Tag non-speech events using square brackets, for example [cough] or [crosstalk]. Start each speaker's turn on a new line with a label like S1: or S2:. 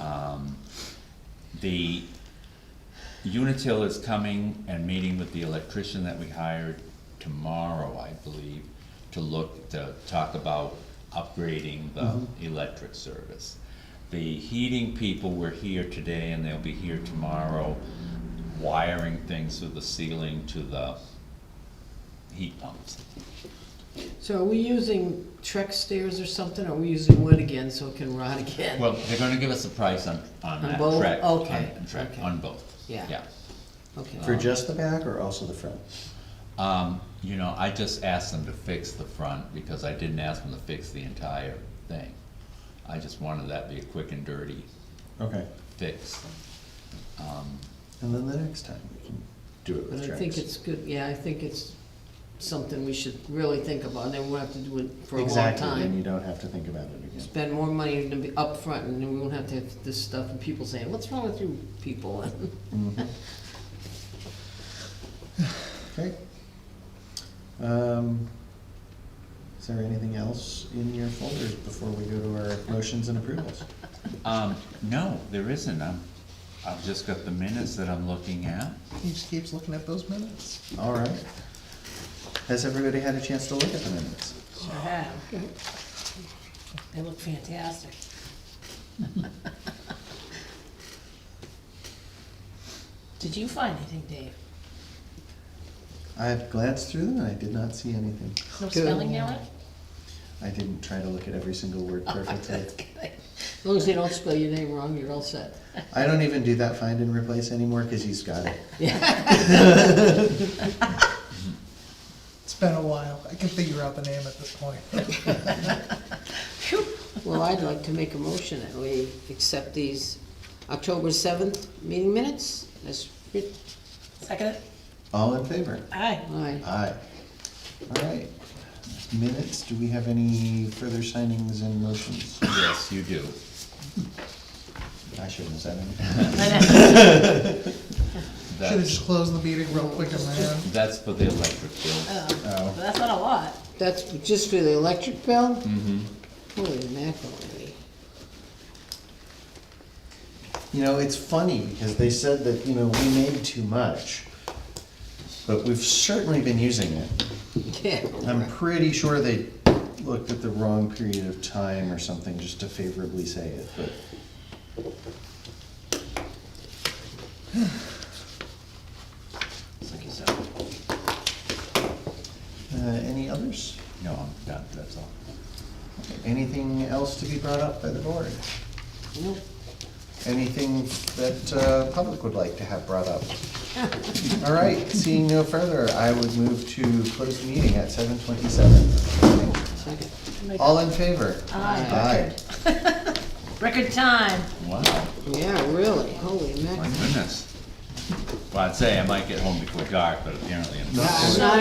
S1: Um, The Unitil is coming and meeting with the electrician that we hired tomorrow, I believe, to look, to talk about upgrading the
S2: Mm-hmm.
S1: electric service. The heating people were here today and they'll be here tomorrow, wiring things through the ceiling to the heat pumps.
S2: So are we using Trek stairs or something, are we using wood again so it can rot again?
S1: Well, they're gonna give us a price on, on that
S2: both?
S1: track, on,
S2: Okay,
S1: track,
S2: okay.
S1: on both,
S2: Yeah.
S1: yeah.
S2: Okay,
S3: For just the back or also the front?
S1: Um, you know, I just asked them to fix the front, because I didn't ask them to fix the entire thing. I just wanted that to be a quick and dirty
S3: Okay.
S1: fix. Um,
S3: And then the next time we can do it
S2: but
S3: with
S2: I think
S3: tracks.
S2: it's good, yeah, I think it's something we should really think about, and then we'll have to do it for a long
S3: Exactly, and
S2: time.
S3: you don't have to think about it
S2: [laughs]
S3: again.
S2: Spend more money to be upfront, and then we won't have to have this stuff, and people saying, what's wrong with you people?
S3: Mm-hmm. Okay. Um, Is there anything else in your folders before we go to our motions and approvals?
S1: Um, no, there isn't, I'm, I've just got the minutes that I'm looking at.
S3: He just keeps looking at those minutes. All right. Has everybody had a chance to look at the minutes?
S4: Sure have. They look fantastic.
S2: [laughs]
S4: Did you find anything, Dave?
S3: I've glanced through them and I did not see anything.
S4: No spelling error?
S3: I didn't try to look at every single
S2: [laughs]
S3: word perfectly.
S2: As long as they don't spell your name wrong, you're all set.
S3: I don't even do that find and replace anymore because he's got it.
S5: It's been a while. I can figure out the name at this point.
S4: Phew.
S2: Well, I'd like to make a motion that we accept these October seventh meeting minutes as, writ-
S4: Second it?
S3: All in favor?
S4: Aye.
S2: aye.
S3: Aye. All right. Minutes, do we have any further signings and motions?
S1: Yes, you do.
S3: I shouldn't have said anything. [laughs]
S5: Should've
S1: That's,
S5: just closed the meeting real quick and ran.
S1: that's for the electric bill.
S4: Oh, but That's not a lot.
S2: That's just for the electric bill? Mm-hmm. Holy mackerel.
S3: You know, it's funny because they said that, you know, we made too much, but we've certainly been using it.
S2: [laughs] Yeah.
S3: I'm pretty sure they looked at the wrong period of time or something just to favorably say it, but.
S1: It's like you said.
S3: Uh, any others?
S1: No, I'm done, that's all.
S3: Anything else to be brought up by the board?
S2: Nope.
S3: Anything that uh, public would like to have brought up? All right, seeing no further, I would move to close the meeting at seven twenty-seven.
S2: Second.
S3: All in favor?
S4: Aye. Record time.
S1: Wow.
S2: Yeah, really, holy
S1: My
S2: mackerel.
S1: goodness. Well, I'd say I might get home before dark, but apparently I'm not.
S2: Not